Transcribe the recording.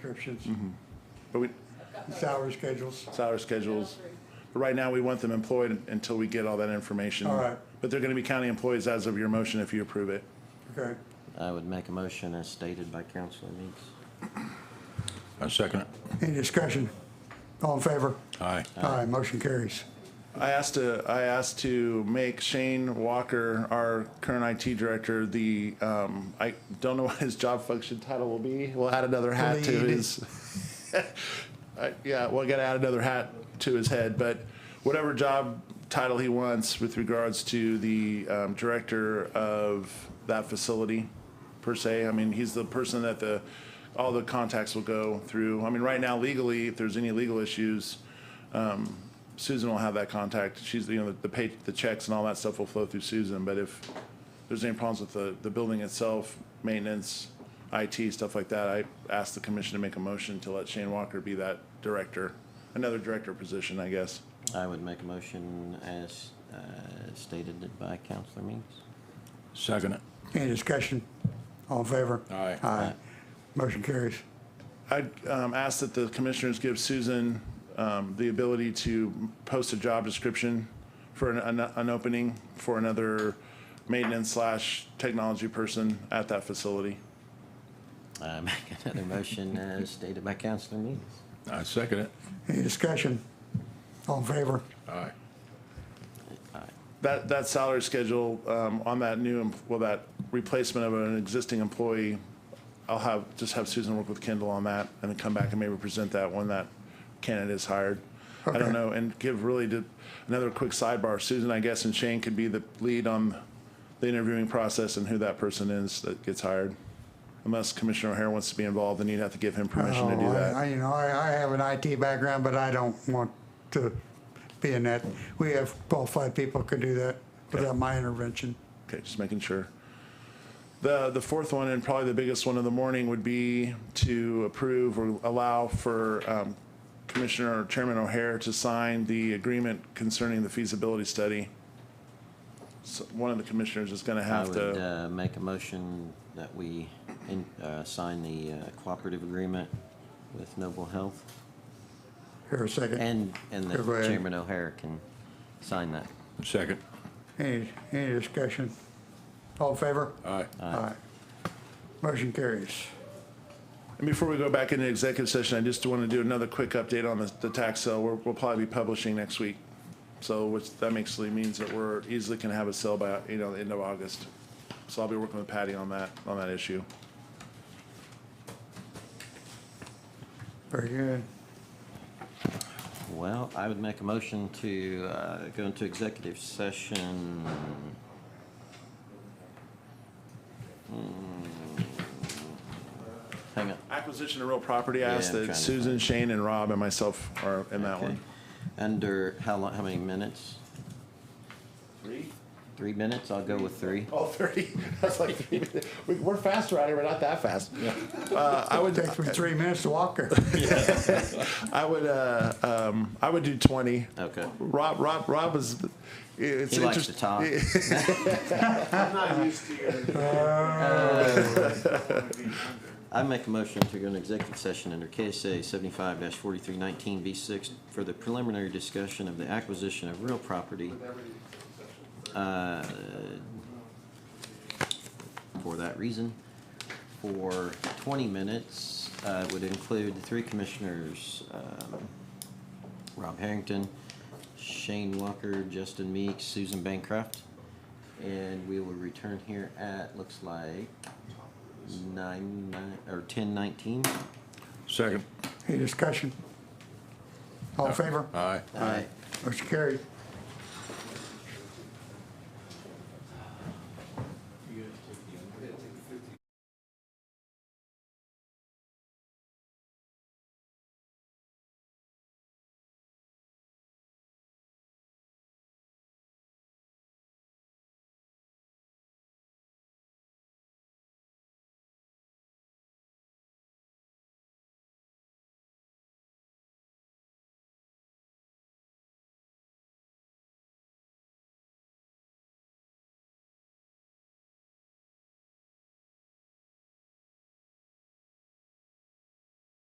descriptions, But we, salary schedules. salary schedules. But right now, we want them employed until we get all that information. All right. But they're gonna be county employees as of your motion if you approve it. Okay, I would make a motion as stated by Councilor Meeks. I second it. any discussion? All in favor? Aye. Aye, motion carries. I asked to, I asked to make Shane Walker, our current IT director, the, um, I don't know what his job function title will be. We'll add another hat to Lead. his. I- Yeah, we'll gotta add another hat to his head, but whatever job title he wants with regards to the, um, director of that facility per se. I mean, he's the person that the, all the contacts will go through. I mean, right now legally, if there's any legal issues, Susan will have that contact. She's, you know, the- the pay, the checks and all that stuff will flow through Susan, but if there's any problems with the, the building itself, maintenance, IT, stuff like that, I asked the commission to make a motion to let Shane Walker be that director, another director position, I guess. I would make a motion as uh, stated by Councilor Meeks. Second it. Any discussion? All in favor? Aye. Aye, motion carries. I um, ask that the commissioners give Susan um, the ability to post a job description for an, an, an opening for another maintenance slash technology person at that facility. I make another motion as stated by Councilor Meeks. I second it. Any discussion? All in favor? Aye. That, that salary schedule, um, on that new, em- well, that replacement of an existing employee, I'll have, just have Susan work with Kendall on that and then come back and maybe present that when that candidate is hired. I Okay. don't know, and give really to, another quick sidebar, Susan, I guess, and Shane could be the lead on the interviewing process and who that person is that gets hired. Unless Commissioner O'Hare wants to be involved, then you'd have to give him permission to do Oh, I- that. I, you know, I, I have an IT background, but I don't want to be in that. We have qualified people could do that without my intervention. Okay, just making sure. The, the fourth one, and probably the biggest one of the morning, would be to approve or allow for um, Commissioner or Chairman O'Hare to sign the agreement concerning the feasibility study. So One of the commissioners is gonna I have would to, uh, make a motion that we in- uh, sign the uh, cooperative agreement with Noble Health. Here a second. And, and that Go ahead. Chairman O'Hara can sign that. Second. Any, any discussion? All in favor? Aye. Aye. Motion carries. and before we go back into executive session, I just want to do another quick update on the, the tax sale. We're, we'll probably be publishing next week. So which, that actually means that we're easily can have a sale by, you know, the end of August. So I'll be working with Patty on that, on that issue. Very good. Well, I would make a motion to uh, go into executive session. Hmm. Hang on. Acquisition of real property, I Yeah, asked I'm that trying to Susan, find- Shane, and Rob and myself are in that Okay. one. Under, how long, how many minutes? Three? Three minutes? I'll go with three. Oh, thirty. That's like, three minutes. We- we're faster out here, but not that fast. Uh, I would, Takes me three minutes to walk there. I would, uh, um, I would do twenty. Okay. Rob, Rob, Rob is, it's He likes to interesting. talk. I'm not used to your. I make a motion to go into executive session under KSA seventy-five forty-three nineteen V six for the preliminary discussion of the acquisition of real property. uh, For that reason, for twenty minutes, uh, would include the three commissioners, um, Rob Harrington, Shane Walker, Justin Meeks, Susan Bancroft. And we will return here at, looks like, nine, nine, or ten nineteen. Second. Any discussion? All in favor? Aye. Aye. Motion carried.